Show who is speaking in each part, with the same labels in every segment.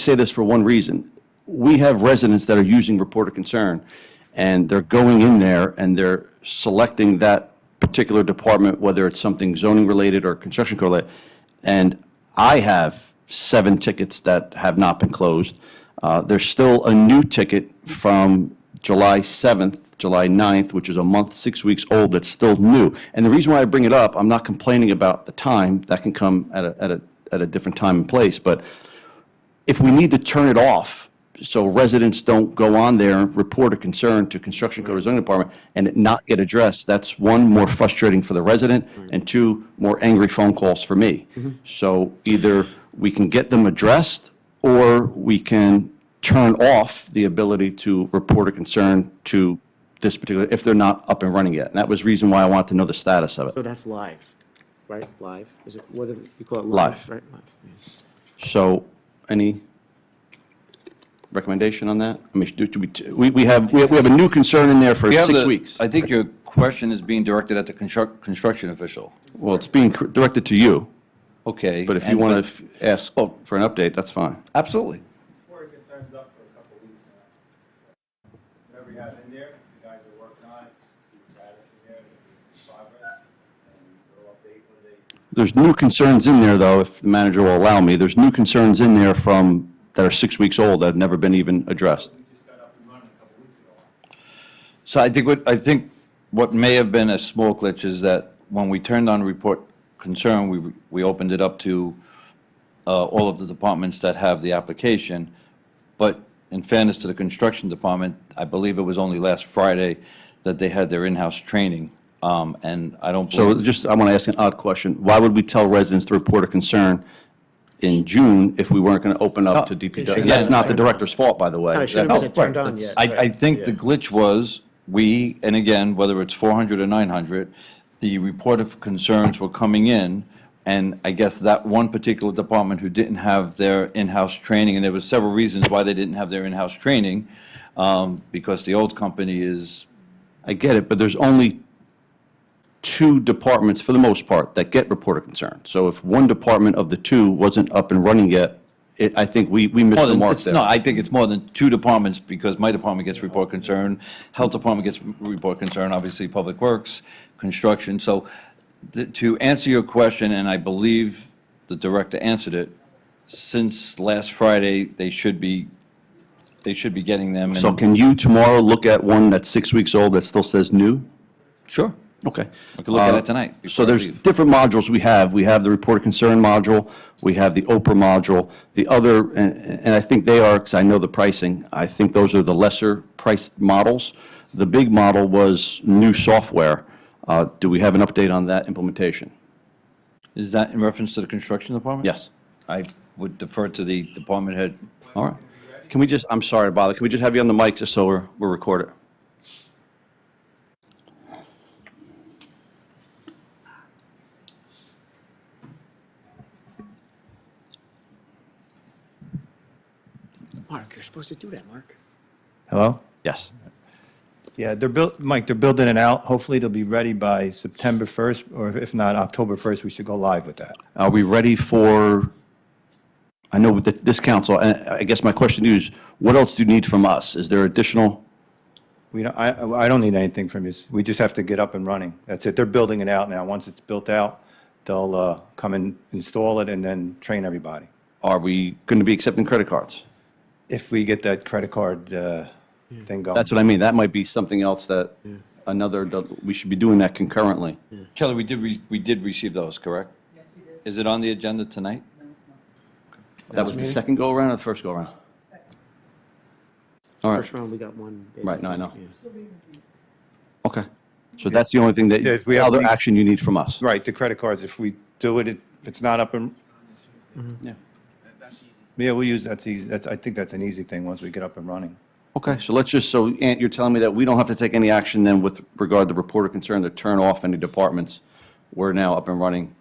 Speaker 1: say this for one reason. We have residents that are using report of concern, and they're going in there and they're selecting that particular department, whether it's something zoning related or construction code related. And I have seven tickets that have not been closed. Uh, There's still a new ticket from July 7th, July 9th, which is a month, six weeks old, that's still new. And the reason why I bring it up, I'm not complaining about the time, that can come at a, at a, at a different time and place, but if we need to turn it off, so residents don't go on there and report a concern to construction code or zoning department and it not get addressed, that's one, more frustrating for the resident, and two, more angry phone calls for me. So either we can get them addressed, or we can turn off the ability to report a concern to this particular, if they're not up and running yet. And that was reason why I wanted to know the status of
Speaker 2: So
Speaker 1: it.
Speaker 2: that's live, right? Live? Is it, what, do you call it?
Speaker 1: Live.
Speaker 2: Right, live.
Speaker 1: So, any recommendation on that? I mean, do, do we, we, we have, we have we have a new concern in there for
Speaker 3: You have
Speaker 1: six
Speaker 3: the-
Speaker 1: weeks.
Speaker 3: I think your question is being directed at the construct, construction official.
Speaker 1: Well, it's being cr- directed to you,
Speaker 3: Okay.
Speaker 1: but if you
Speaker 3: and- Oh.
Speaker 1: want to ask for an update, that's fine.
Speaker 3: Absolutely.
Speaker 4: Before concern's up for a couple of weeks now. So, Whatever you have in there, you guys are working on, it, see status in there, see progress, and we'll update when they
Speaker 1: There's new concerns in there, though, if the manager will allow me, there's new concerns in there from, that are six weeks old that have never been even addressed.
Speaker 4: just got up and running a couple of weeks ago.
Speaker 3: So I think what, I think what may have been a small glitch is that when we turned on report concern, we, we opened it up to uh, all of the departments that have the application. But in fairness to the construction department, I believe it was only last Friday that they had their in-house training. Um, And I don't
Speaker 1: So
Speaker 3: believe,
Speaker 1: just, I want to ask an odd question. Why would we tell residents to report a concern in June if we weren't going to open up to DPW?
Speaker 3: Again-
Speaker 1: That's not the director's fault, by the way.
Speaker 2: No, it shouldn't
Speaker 1: That's-
Speaker 2: have been turned on yet.
Speaker 3: I, I
Speaker 2: right.
Speaker 3: think the glitch was, we, and again, whether it's 400 or 900, the report of concerns were coming in, and I guess that one particular department who didn't have their in-house training, and there were several reasons why they didn't have their in-house training, um, because the old company is,
Speaker 1: I get it, but there's only two departments, for the most part, that get report of concern. So if one department of the two wasn't up and running yet, it, I think we, we missed
Speaker 3: more
Speaker 1: the
Speaker 3: than,
Speaker 1: mark
Speaker 3: it's- no,
Speaker 1: there.
Speaker 3: I think it's more than two departments, because my department gets report concern, health department gets m- report concern, obviously, public works, construction, so th- to answer your question, and I believe the director answered it, since last Friday, they should be, they should be getting them. and-
Speaker 1: So can you tomorrow look at one that's six weeks old that still says new?
Speaker 3: Sure.
Speaker 1: Okay.
Speaker 3: We can look at
Speaker 1: Uh,
Speaker 3: it tonight
Speaker 1: So
Speaker 3: before I
Speaker 1: there's
Speaker 3: leave.
Speaker 1: different modules we have. We have the report of concern module, we have the Oprah module, the other, and, and I think they are, because I know the pricing, I think those are the lesser priced models. The big model was new software. Uh, Do we have an update on that implementation?
Speaker 3: Is that in reference to the construction department?
Speaker 1: Yes.
Speaker 3: I would defer to the department head.
Speaker 1: All right. Can we just, I'm sorry to bother, can we just have you on the mic just so we're, we're recorded?
Speaker 2: Mark, you're supposed to do that, Mark.
Speaker 4: Hello?
Speaker 1: Yes.
Speaker 4: Yeah, they're built, Mike, they're building it out. Hopefully it'll be ready by September 1st, or if not, October 1st, we should go live with that.
Speaker 1: Are we ready for, I know with the- this council, and I guess my question is, what else do you need from us? Is there additional?
Speaker 4: We don't, I, I don't need anything from you. We just have to get up and running. That's it. They're building it out now. Once it's built out, they'll, uh, come and install it and then train everybody.
Speaker 1: Are we going to be accepting credit cards?
Speaker 4: If we get that credit card, uh, thing going.
Speaker 1: That's what I mean. That might be something else that another, we should be doing that concurrently.
Speaker 3: Kelly, we did, re- we did receive those, correct? Yes, we did. Is it on the agenda tonight?
Speaker 1: That was the second go-around or the first go-around? All right,
Speaker 2: First round, we got one. bid.
Speaker 1: Right, no, I know.
Speaker 2: Yeah.
Speaker 1: okay. So that's the only thing
Speaker 4: Yeah,
Speaker 1: that,
Speaker 4: if we have-
Speaker 1: other action you need from us?
Speaker 4: Right, the credit cards, if we do it, it- if it's not up and,
Speaker 1: Yeah.
Speaker 4: yeah, we'll use, that's easy, that's, I think that's an easy thing, once we get up and running.
Speaker 1: Okay, so let's just, so Ant, you're telling me that we don't have to take any action then with regard to reporter concern to turn off any departments? We're now up and running.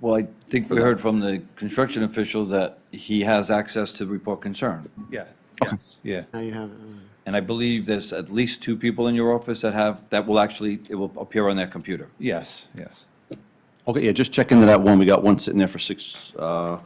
Speaker 3: Well, I think we heard from the construction official that he has access to report concern.
Speaker 4: Yeah. Yes. Yeah.
Speaker 2: Now you have, uh, it, all right.
Speaker 3: And I believe there's at least two people in your office that have, that will actually, it will appear on their computer.
Speaker 4: Yes, yes.
Speaker 1: Okay, yeah, just check into that one. We got one sitting there for six, uh,